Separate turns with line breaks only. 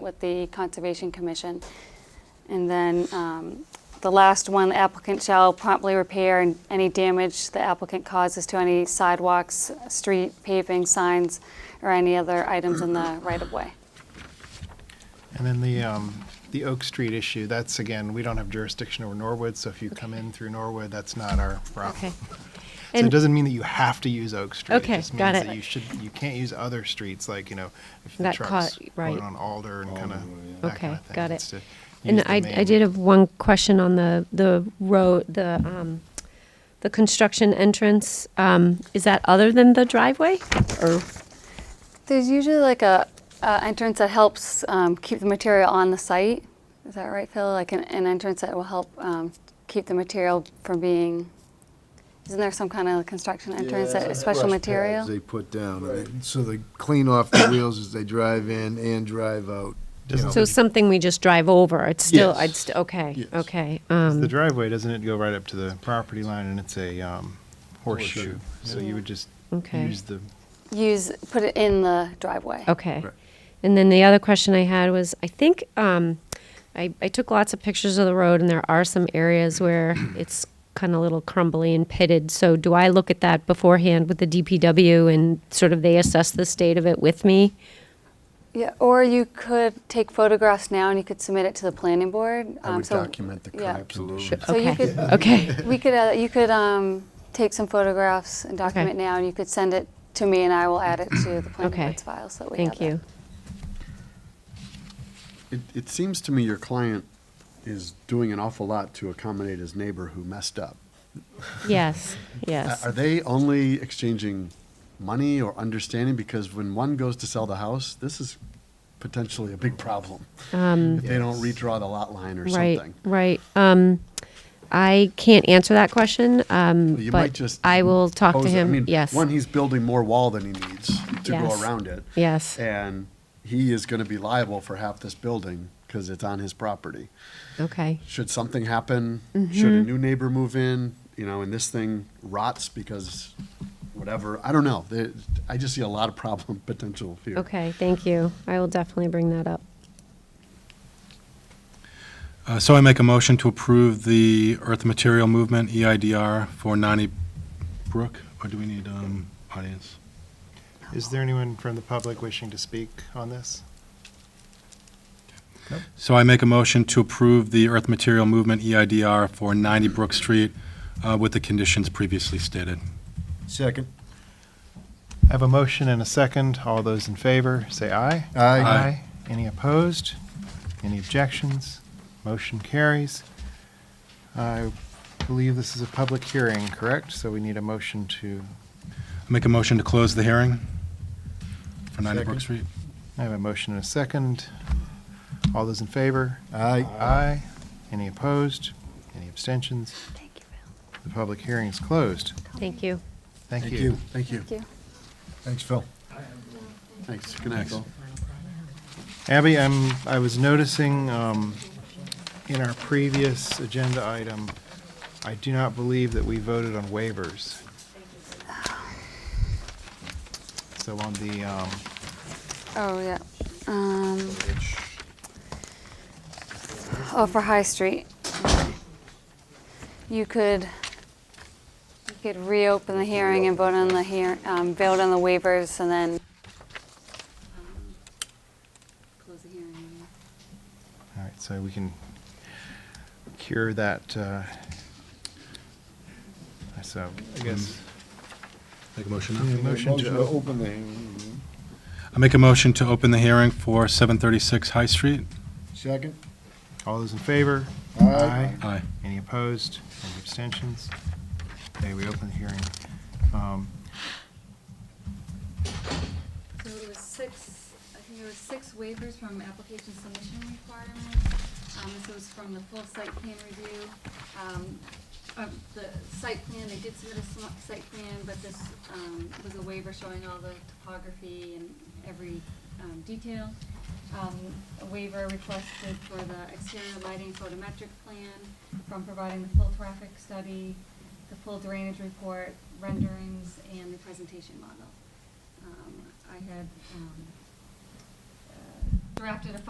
with the Conservation Commission. And then um, the last one, the applicant shall promptly repair and any damage the applicant causes to any sidewalks, street paving, signs, or any other items in the right-of-way.
And then the, um, the Oak Street issue, that's again, we don't have jurisdiction over Norwood, so if you come in through Norwood, that's not our
Okay.
problem. So it
And,
doesn't mean that you have to use Oak Street.
Okay,
It just
got
means
it.
that you should, you can't use other streets, like, you know, if the
Got
trucks
caught- right.
going on Alder and kind of, that
Okay,
kind of thing.
got it.
It's to
and
use the
I, I
main-
did have one question on the, the road, the, um, the construction entrance. Um, is that other than the driveway or?
There's usually like a, a entrance that helps um, keep the material on the site. Is that right, Phil? Like an, an entrance that will help um, keep the material from being. Isn't there some kind of construction entrance that is special material?
They put down, and they- so they clean off the wheels as they drive in and drive out. you
Doesn't
know.
So something we just drive over, it's still,
Yes.
I'd, st- okay,
Yes.
okay.
The
um,
driveway, doesn't it go right up to the property line and it's a, um, horseshoe? So you would just
Okay.
use the,
Use put it in the driveway.
Okay.
Right.
And then the other question I had was, I think, um, I, I took lots of pictures of the road and there are some areas where it's kind of a little crumbly and pitted. So do I look at that beforehand with the DPW and sort of they assess the state of it with me?
Yeah, or you could take photographs now and you could submit it to the planning board.
I
Um,
would
so-
document the
yeah.
current condition.
So you
Okay.
could,
Okay,
we could, uh, you could um, take some photographs and document now, and you could send it to me, and I will add it to the planning
Okay.
board's file so that we have
thank you.
it.
It, it seems to me your client is doing an awful lot to accommodate his neighbor who messed up.
Yes,
Uh,
yes.
Are they only exchanging money or understanding? Because when one goes to sell the house, this is potentially a big problem. If they don't redraw the lot line or
Um, Right,
something.
right. Um, I can't answer that question, um,
You might
but
just
I will talk to
Pose it. I
him,
mean,
yes.
One, he's building more wall than he needs to
Yes.
go around it.
Yes,
And he is going to be liable for half this building because it's on his property.
okay,
should something happen, should a new neighbor move in, you know, and this thing rots because whatever, I don't know. There- I just see a lot of problem potential here.
okay, thank you. I will definitely bring that up.
Uh, So I make a motion to approve the Earth Material Movement E EIDR for 90 Brook, or do we need um, audience?
is there anyone from the public wishing to speak on this?
So I make a motion to approve the Earth Material Movement E EIDR for 90 Brook Street uh, with the conditions previously stated.
Second.
I have a motion and a second. All those in favor, say aye.
Aye.
Aye.
Any opposed? Any objections? Motion carries. I believe this is a public hearing, correct? So we need a motion to,
Make a motion to close the hearing for 90
Second.
Brook Street.
I have a motion and a second. All those in favor?
Aye.
Aye. Any opposed? Any abstentions?
Thank you, Bill.
The public hearing is closed.
Thank you.
Thank
Thank
you.
you.
Thank you.
Thank you.
Thanks, Phil.
Thanks. Good night,
Thanks.
Phil.
Abby, I'm, I was noticing, um, in our previous agenda item, I do not believe that we voted on waivers. So on the, um,
Oh, yeah. Um, oh, for High Street. Okay. You could, you could reopen the hearing and vote on the hear, um, vote on the waivers and then. um, Close the hearing.
all right, so we can cure that, uh, so I guess.
Make a motion
Yeah,
now.
Motion to, o-
open the.
I make a motion to open the hearing for 736 High Street.
Second.
all those in favor?
Aye.
Aye.
Any opposed? Any abstentions? Okay, we open the hearing. Um,
So it was six, I think it was six waivers from application submission requirements. Um, this was from the full site plan review. Um, uh, the site plan, they did submit a sm- site plan, but this, um, was a waiver showing all the topography and every, um, detail. Um, a waiver requested for the exterior lighting photometric plan from providing the full traffic study, the full drainage report, renderings, and the presentation model. Um, I had, um, uh, drafted a